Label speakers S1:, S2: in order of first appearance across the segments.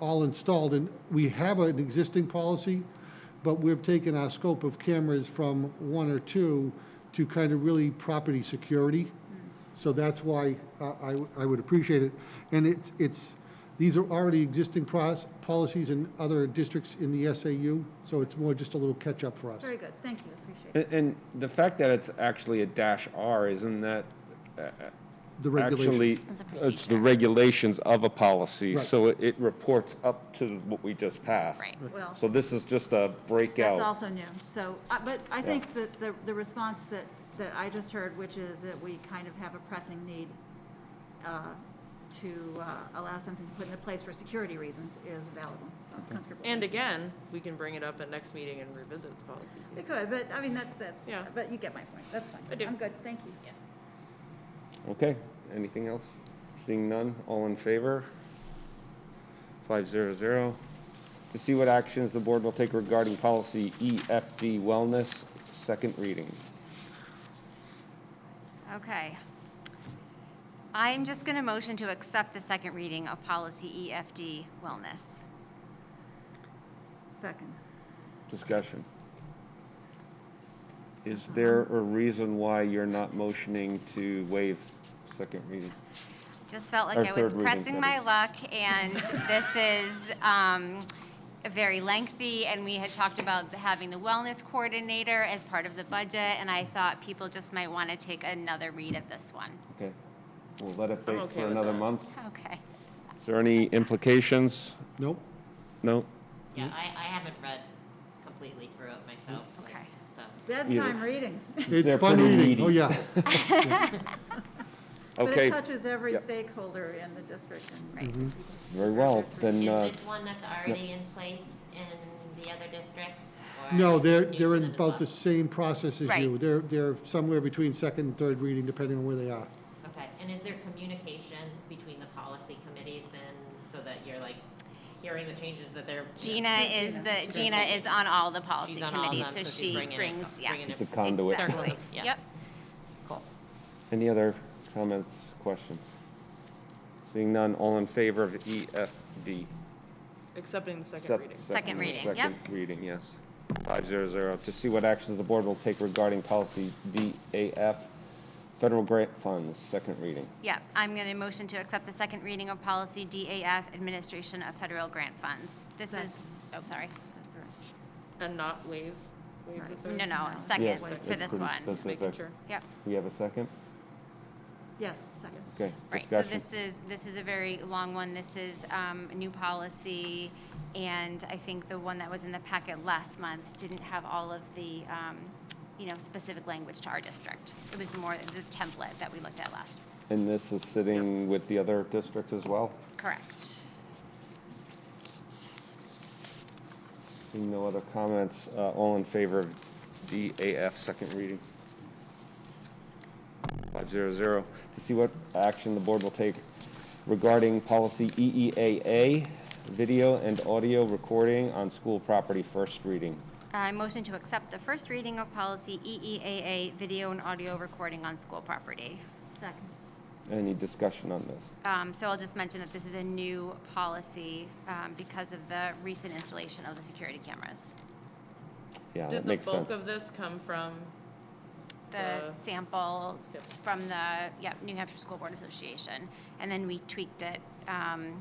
S1: all installed, and we have an existing policy, but we've taken our scope of cameras from one or two to kind of really property security. So that's why uh, I, w- I would appreciate it. And it's, it's, these are already existing pros- policies in other districts in the SAU, so it's more just a little catch-up for us.
S2: Very good, thank you, appreciate it.
S3: And, and the fact that it's actually a dash R, isn't that uh,
S1: The
S3: actually,
S1: regulations.
S4: It's a
S3: it's
S4: procedure.
S3: the regulations of a policy,
S1: Right.
S3: so it- it reports up to what we just passed.
S4: Right.
S2: Well,
S3: So this is just a
S2: that's
S3: breakout.
S2: also new, so, uh, but I think that the, the response that, that I just heard, which is that we kind of have a pressing need uh, to uh, allow something to put into place for security reasons is valid, one, so I'm comfortable.
S5: And again, we can bring it up at next meeting and revisit the policy.
S2: It could, but, I mean, that, that's,
S5: Yeah.
S2: but you get my point, that's fine.
S5: I do.
S2: I'm good, thank you.
S3: Okay, anything else? Seeing none, all in favor? Five zero zero. To see what actions the board will take regarding policy EFD wellness, second reading.
S4: Okay. I'm just going to motion to accept the second reading of policy EFD wellness.
S2: Second.
S3: Discussion. Is there a reason why you're not motioning to waive second reading?
S4: Just felt like
S3: Our
S4: I was
S3: third reading,
S4: pressing my
S3: that
S4: luck, and this is um, very lengthy, and we had talked about having the wellness coordinator as part of the budget, and I thought people just might want to take another read of this one.
S3: Okay, we'll let it bake
S5: okay
S3: for
S5: with
S3: another
S5: that.
S3: month.
S4: Okay.
S3: Is there any implications?
S1: Nope.
S3: No?
S4: Mm-hmm.
S6: Yeah, I, I haven't read completely through it myself. like,
S4: Okay.
S6: So,
S2: Bedtime reading.
S1: It's
S3: They're
S1: fun
S3: pretty
S1: reading, oh,
S3: meaty.
S1: yeah.
S2: But it
S3: Okay,
S2: touches every
S3: Yep. Mm-hmm.
S2: stakeholder in the district and.
S4: Right.
S3: very well, then,
S6: is
S3: uh,
S6: this one that's already in place in the other districts? or
S1: No,
S6: is
S1: they're,
S6: this new
S1: they're
S6: to
S1: in
S6: them as
S1: about the
S6: well?
S1: same process as you.
S4: Right.
S1: They're, they're somewhere between second and third reading, depending on where they are.
S6: Okay, and is there communication between the policy committees then, so that you're like hearing the changes that they're?
S4: Gina is the, Gina is on all the policy
S6: She's on all of
S4: committees,
S6: them,
S4: so
S6: so she's
S4: she
S6: bringing it-
S4: brings, yeah.
S6: bringing it-
S3: The conduit.
S6: Circle
S4: Exactly.
S6: them, yeah.
S4: Yep.
S6: Cool.
S3: any other comments, questions? Seeing none, all in favor of E EFD?
S5: Accepting the second
S3: Sep-
S5: reading.
S4: Second reading, yep.
S3: Second reading, yes. Five zero zero, to see what actions the board will take regarding policy DAF, federal grant funds, second reading.
S4: Yeah, I'm going to motion to accept the second reading of policy DAF, Administration of Federal Grant Funds. This is, oh, sorry.
S5: And not waive, waive the third?
S4: No, no,
S3: Yes,
S4: second
S3: it's
S4: for this
S3: pretty-
S4: one.
S3: that's
S5: Just making
S3: perfect.
S5: sure.
S4: Yep,
S3: We have a second?
S2: Yes, second.
S3: Okay,
S4: right, so
S3: discussion.
S4: this is, this is a very long one. This is um, new policy, and I think the one that was in the packet last month didn't have all of the, um, you know, specific language to our district. It was more the template that we looked at last.
S3: And this is sitting with the other district as well?
S4: Correct.
S3: Seeing no other comments, uh, all in favor of DAF, second reading? Five zero zero. To see what action the board will take regarding policy E EEAA, video and audio recording on school property, first reading.
S4: Uh, I motion to accept the first reading of policy E EEAA, video and audio recording on school property.
S2: Second.
S3: Any discussion on this?
S4: Um, So I'll just mention that this is a new policy um, because of the recent installation of the security cameras.
S3: Yeah,
S5: Did
S3: that
S5: the
S3: makes sense.
S5: bulk of this come from,
S4: The
S5: The-
S4: sample
S5: Sample.
S4: from the, yeah, New Hampshire School Board Association. And then we tweaked it um,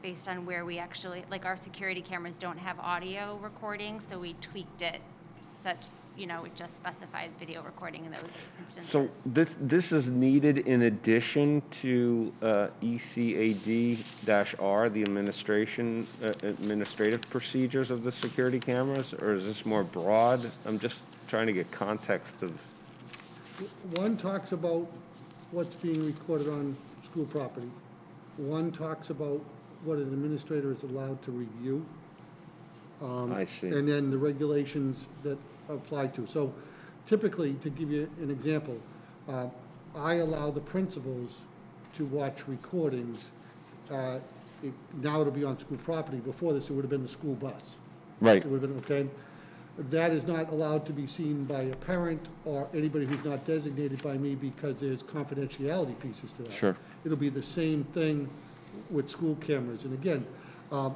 S4: based on where we actually, like, our security cameras don't have audio recording, so we tweaked it such, you know, it just specifies video recording in those
S3: So
S4: instances.
S3: this, this is needed in addition to uh, ECAD-R, the administration, uh, administrative procedures of the security cameras? Or is this more broad? I'm just trying to get context of,
S1: One talks about what's being recorded on school property. One talks about what an administrator is allowed to review. um,
S3: I see.
S1: And then the regulations that apply to. So typically, to give you an example, uh, I allow the principals to watch recordings. uh, it- Now it'll be on school property. Before this, it would have been the school bus.
S3: right,
S1: It would have been okay. That is not allowed to be seen by a parent or anybody who's not designated by me because there's confidentiality pieces to that.
S3: Sure.
S1: It'll be the same thing with school cameras. And again, Um,